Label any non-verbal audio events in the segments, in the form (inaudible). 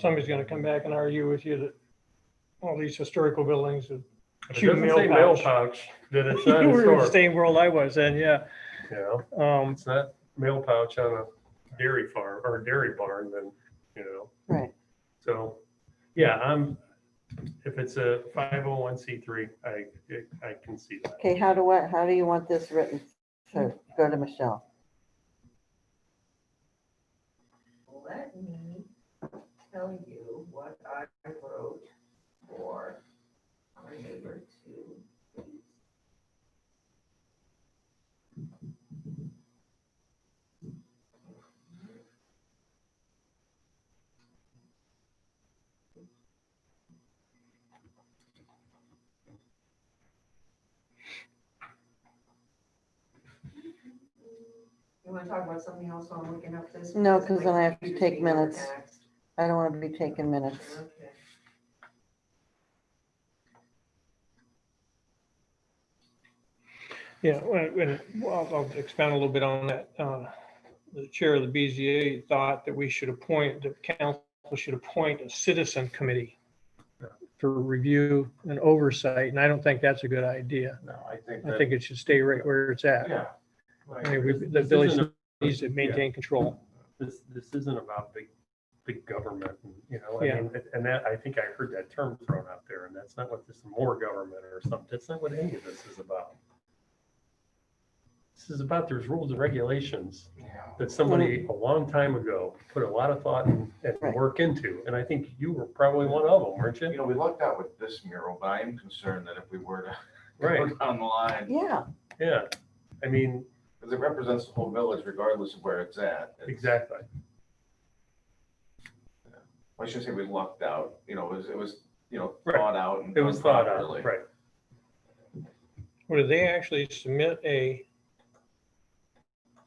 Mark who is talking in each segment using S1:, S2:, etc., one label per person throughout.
S1: somebody's gonna come back and argue with you that all these historical buildings, that-
S2: It
S1: Shoot,
S2: doesn't say
S1: mailbox.
S2: mailbox,
S1: (laughs)
S2: that it's not
S1: you were in the
S2: historic,
S1: same world I was in, yeah.
S2: you know?
S1: Um,
S2: It's not mail pouch on a dairy farm or a dairy barn, then, you know,
S3: Right.
S2: so, yeah, I'm, if it's a five oh one C three, I, I can see that.
S3: Okay, how do I, how do you want this written? So go to Michelle.
S4: Let me tell you what I wrote for our neighbor to. You want to talk about something else while I'm looking up this?
S3: No, 'cause then I have to
S4: Because my
S3: take
S4: computer's being
S3: minutes.
S4: overtaxed.
S3: I don't want to be taking minutes.
S4: Okay.
S1: yeah, when, when, well, I'll expand a little bit on that. Uh, The chair of the BZA thought that we should appoint, the council should appoint a citizen committee for review and oversight, and I don't think that's a good idea.
S5: No, I think
S1: I
S5: that,
S1: think it should stay right where it's at.
S5: yeah.
S1: I mean, we- the
S2: This
S1: village
S2: isn't-
S1: needs to maintain control.
S2: This, this isn't about big, big government, you know, I
S1: Yeah.
S2: mean, and that, I think I heard that term thrown out there, and that's not what this, more government or something, that's not what any of this is about. This is about, there's rules and regulations that somebody a long time ago put a lot of thought and, and
S3: Right.
S2: work into, and I think you were probably one of them, weren't
S5: You
S2: you?
S5: know, we lucked out with this mural, but I am concerned that if we were to go
S2: Right,
S5: down the line,
S3: Yeah,
S2: yeah, I mean,
S5: because it represents the whole village regardless of where it's at. It's-
S2: exactly,
S5: I shouldn't say we lucked out, you know, it was, it was, you know,
S2: Right.
S5: thought out and.
S2: it was
S5: done
S2: thought out,
S5: properly.
S2: right,
S1: Well, do they actually submit a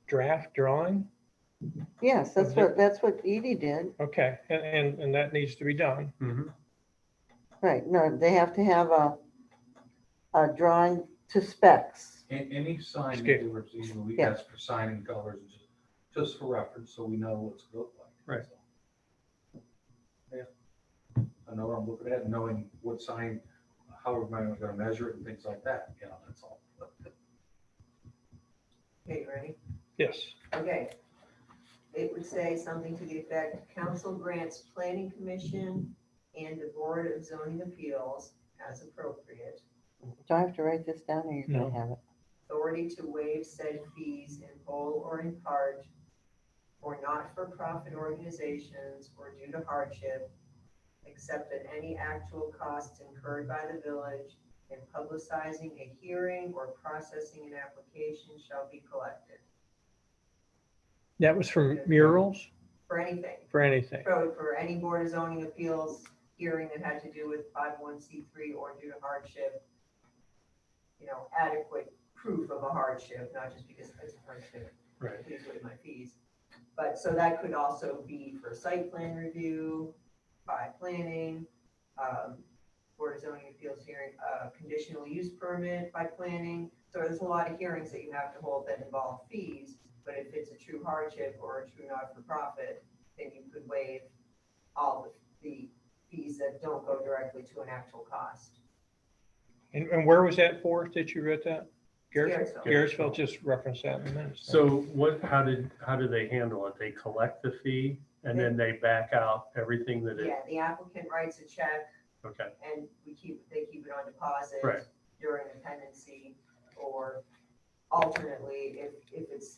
S1: draft drawing?
S3: yes, that's what, that's what Edie did.
S1: Okay, and, and, and that needs to be done.
S2: Mhm.
S3: Right, no, they have to have a, a drawing to specs.
S6: And any sign
S1: Scale.
S6: that we're seeing, we
S3: Yeah.
S6: ask for sign and colors, just- just for reference, so we know what's good like.
S2: Right.
S6: So, Yeah. I know what I'm looking at, knowing what sign, how am I gonna measure it and things like that, you know, that's all.
S4: Okay, ready?
S1: Yes.
S4: Okay. It would say something to the effect, council grants planning commission and the board of zoning appeals as appropriate
S3: Do I have to write this down or you're
S1: No.
S3: gonna have it?
S4: authority to waive said fees in whole or in part for not-for-profit organizations or due to hardship, except at any actual costs incurred by the village in publicizing a hearing or processing an application shall be collected
S1: That was from murals
S4: for anything.
S1: for anything.
S4: For, for any board of zoning appeals hearing that had to do with five oh one C three or due to hardship. You know, adequate proof of a hardship, not just because it's a hardship,
S2: right.
S4: please waive my fees. But, so that could also be for site plan review, by planning, um, board of zoning appeals hearing, uh, conditional use permit by planning. So there's a lot of hearings that you have to hold that involve fees, but if it's a true hardship or a true not-for-profit, then you could waive all the the fees that don't go directly to an actual cost.
S1: And, and where was that for that you read that? Garrett-
S4: Garrettsville.
S1: Garrettsville just referenced that in the minutes.
S2: So what, how did, how do they handle it? They collect the fee and then they back out everything that it,
S4: Yeah, the applicant writes a check
S2: okay.
S4: and we keep, they keep it on deposit.
S2: Right.
S4: During the tenancy, or alternately, if, if it's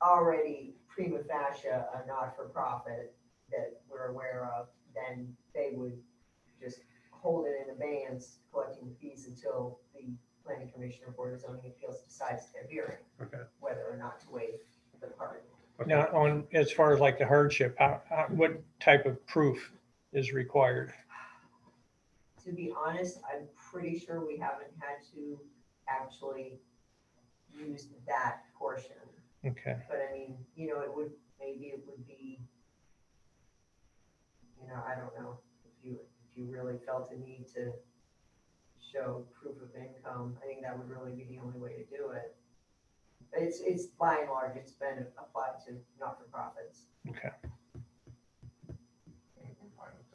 S4: already prima facie a not-for-profit that we're aware of, then they would just hold it in abeyance, collecting the fees until the planning commission or board of zoning appeals decides their hearing.
S2: Okay.
S4: Whether or not to waive the part.
S1: Now, on, as far as like the hardship, how, how, what type of proof is required?
S4: To be honest, I'm pretty sure we haven't had to actually use that portion.
S1: Okay,
S4: But I mean, you know, it would, maybe it would be, you know, I don't know, if you, if you really felt a need to show proof of income, I think that would really be the only way to do it. But It's, it's by and large, it's been applied to not-for-profits.
S1: okay.